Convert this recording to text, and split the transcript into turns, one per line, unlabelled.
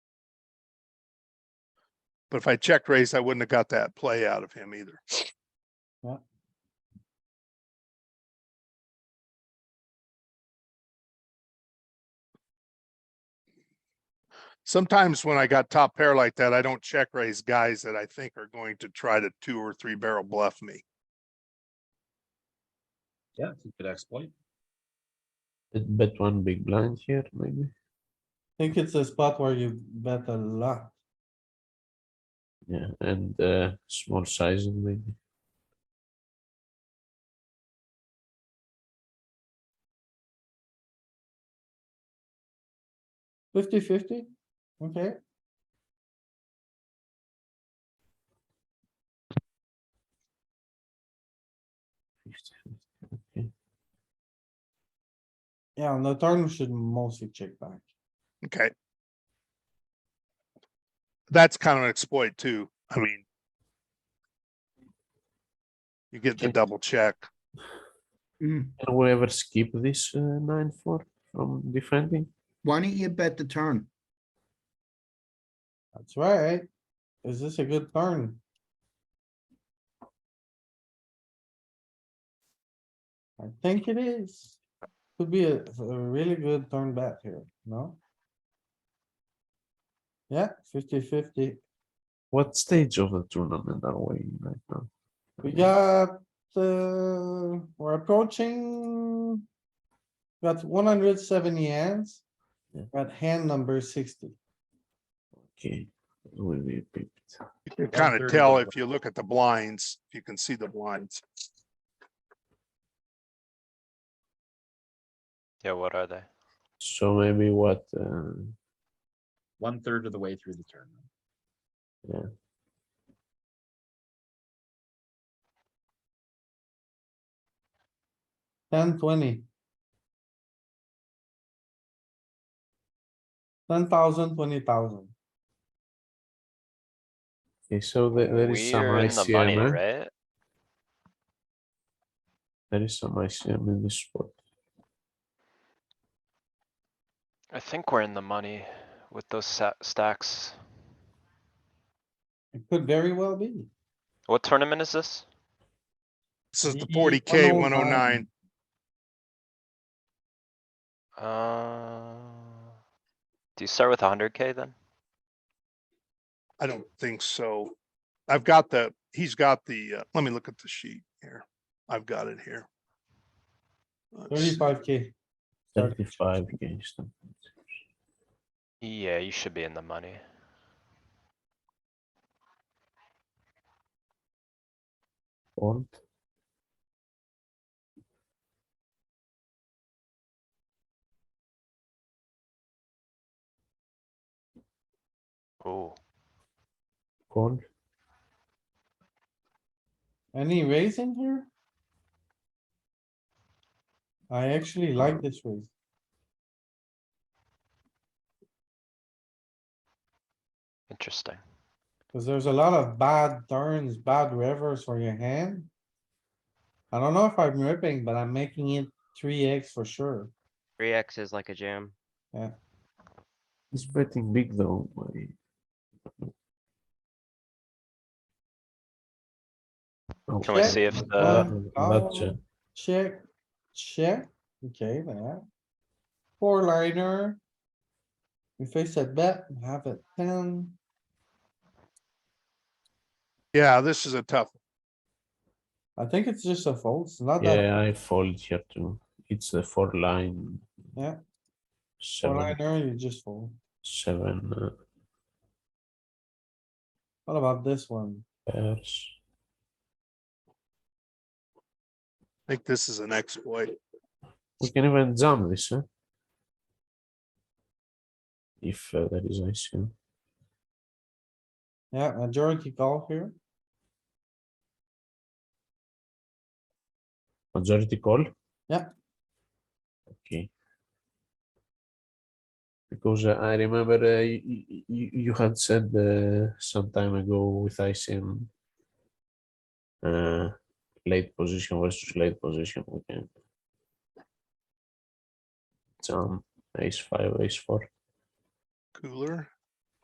But if I check raised, I wouldn't have got that play out of him either. Sometimes when I got top pair like that, I don't check raise guys that I think are going to try to two or three barrel bluff me.
Yeah, it's a good exploit.
Did bet one big blind here, maybe?
Think it's a spot where you bet a lot.
Yeah, and uh, small sizing maybe.
Fifty fifty, okay?
Okay.
Yeah, on the turn, we should mostly check back.
Okay. That's kind of an exploit too. I mean. You get the
Okay.
double check.
Can we ever skip this uh, nine four from defending?
Why don't you bet the turn?
That's right. Is this a good turn? I think it is. Could be a, a really good turn bet here, no? Yeah, fifty fifty.
What stage of the tournament are we in right now?
We got, uh, we're approaching. Got one hundred seventy hands.
Yeah.
Got hand number sixty.
Okay, will be picked.
You can kind of
130
tell
double.
if you look at the blinds, if you can see the blinds.
Yeah, what are they?
So maybe what? Uh,
One third of the way through the turn.
Ten twenty. Ten thousand, twenty thousand.
okay, so there, there is some
We're in the money,
ICM. eh?
right?
There is some ICM in this spot.
I think we're in the money with those sa- stacks.
It could very well be.
What tournament is this?
This is the
Ye-
forty K one oh
109.
nine.
Uh. Do you start with hundred K then?
I don't think so. I've got the, he's got the, uh, let me look at the sheet here. I've got it here. Let's see.
Thirty-five K.
Thirty-five against them.
Yeah, you should be in the money.
Fold.
Oh,
Call.
Any raising here? I actually like this raise.
interesting.
Cause there's a lot of bad turns, bad rivers for your hand. I don't know if I'm ripping, but I'm making it three X for sure.
Three X is like a jam.
He's betting big though. I- Oh,
Can we
Check.
see if the,
uh,
Um,
not check.
Check, check, okay, that. Four liner. We face a bet, we have a ten.
Yeah, this is a tough,
I think it's just a fold, it's not that
Yeah, I fold here too. It's the four line.
Yeah. four
Seven,
liner, you just fold.
seven uh,
What about this one?
pairs.
I think this is an exploit.
We can even jump this, huh? If uh, there is ICM.
Yeah, majority call here,
Majority call?
Yeah.
Okay. Because uh, I remember uh, y- y- y- you, you had said uh, some time ago with ICM uh, late position versus late position, we can jump ace five, ace four.
Cooler.